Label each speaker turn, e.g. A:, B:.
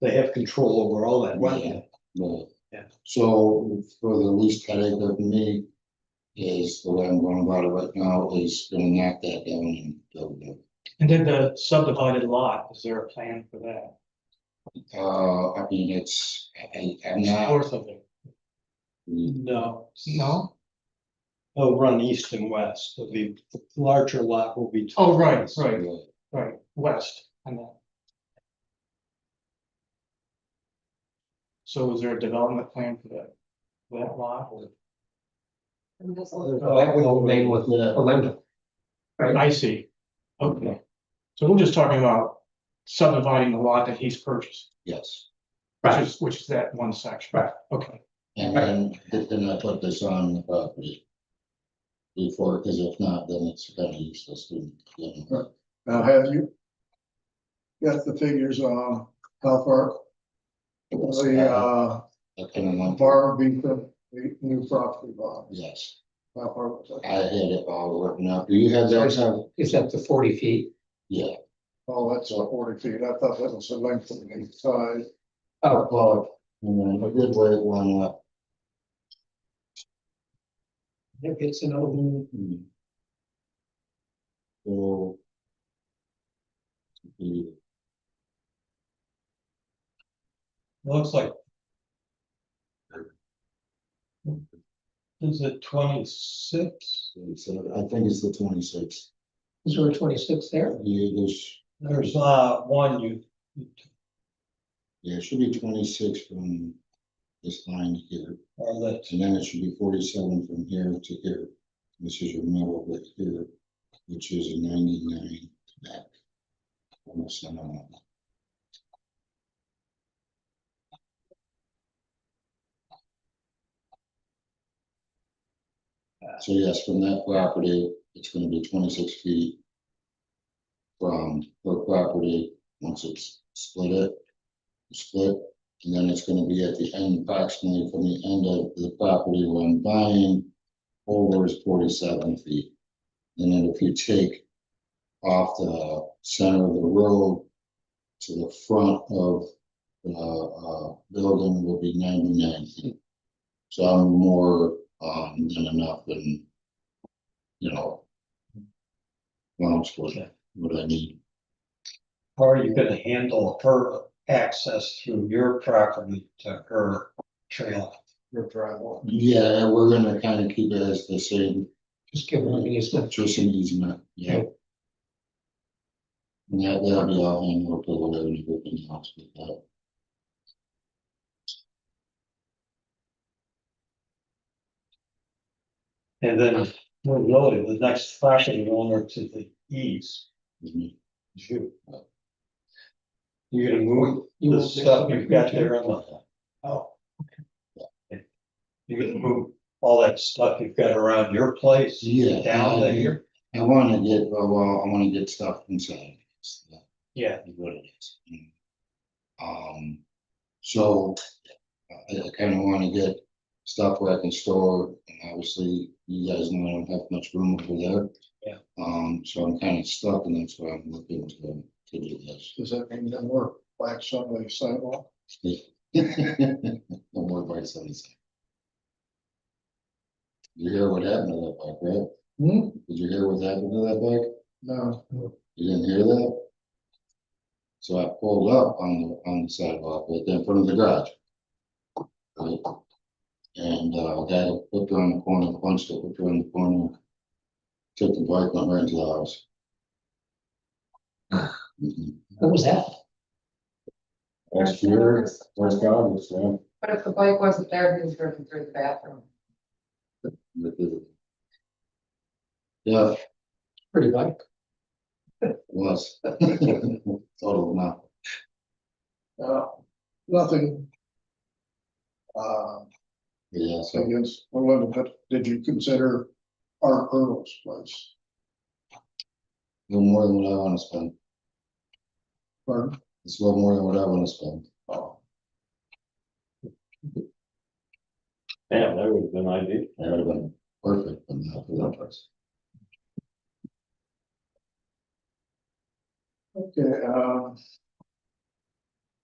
A: they have control over all that wetland.
B: Right.
A: Yeah.
B: So for the least headache of me is the way I'm going about it right now is gonna knock that down and build it.
C: And then the subdivided lot, is there a plan for that?
B: Uh, I mean, it's, I, I'm not.
C: North of it?
A: No,
C: No?
A: they'll run east and west, so the larger lot will be.
C: Oh, right, right, right, west and that. So is there a development plan for that, for that lot or?
A: That would remain with the lender. Right.
C: I see. Okay. So we're just talking about subdividing the lot that he's purchased,
B: Yes,
C: which
A: Right.
C: is, which is that one section.
A: Right.
C: Okay,
B: and then, then I put this on the property. Before, because if not, then it's kind of useless to.
D: Now, have you? Got the figures on how far the uh
B: I kind of like,
D: bar being the the new property bond,
B: yes,
D: how far was that?
B: I had it all written up. Do you have that? Tom?
E: It's up to forty feet.
B: Yeah,
D: Oh, that's uh, forty feet, I thought that was the length of the side.
B: oh, well, and then a good way it went up.
E: If it's an old,
B: Mhm. So. the-
A: Looks like. Is it twenty-six?
B: it's, uh, I think it's the twenty-six.
E: is there a twenty-six there?
B: Yeah, there's,
A: There's uh one you,
B: yeah, it should be twenty-six from this line here,
A: or that,
B: and then it should be forty-seven from here to here. This is your middle right here, which is a ninety-nine back. Almost, I don't know. So yes, from that property, it's gonna be twenty-six feet. From her property, once it's split it, split, and then it's gonna be at the end approximately from the end of the property where I'm buying. Over is forty-seven feet. And then if you take off the center of the road to the front of the uh building will be ninety-nine feet. So I'm more um than enough and you know. Rounds for what I need.
A: how are you gonna handle her access through your property to her trail?
D: Your driveway.
B: Yeah, we're gonna kind of keep it as the same
E: Just give them an easement.
B: Just an easement, yeah. Yeah, that'll be all handled or whatever you put in the house with that.
A: And then, we're noted, the next property owner to the east
B: with me.
A: is you. You're gonna move
E: You
A: the
E: will-
A: stuff you've got there on the, oh. You're gonna move all that stuff you've got around your place
B: Yeah.
A: down
B: I-
A: to here?
B: I wanna get, uh, well, I wanna get stuff inside. uh, That's
A: Yeah.
B: What it is. Mm. Um, so I, I kinda wanna get stuff where I can store, and obviously you guys know I don't have much room over there.
A: Yeah.
B: Um, so I'm kinda stuck and that's why I'm looking to, to do this.
D: Does that mean that we're black Sunday sidewalk?
B: No more bites on this. You hear what happened to that bike, right?
D: Hmm?
B: Did you hear what happened to that bike?
D: No,
B: You didn't hear that? So I pulled up on the, on the sidewalk, right there in front of the garage. Right? And, uh, I got a whipped around the corner, punched it, whipped around the corner. Took the bike, went right into the house.
E: Ah.
B: Mhm.
E: What was that?
B: Last year, first August, yeah.
F: But if the bike wasn't there, he was driven through the bathroom.
B: with the- Yeah,
E: Pretty bike.
B: was. Total amount.
D: uh, nothing. Uh,
B: Yeah, so
D: against, well, but did you consider our Earl's place?
B: no more than what I wanna spend.
D: Pardon?
B: It's a little more than what I wanna spend.
D: Oh,
G: Yeah, that would have been ideal.
B: That would have been perfect, but not for that price.
D: Okay, uh,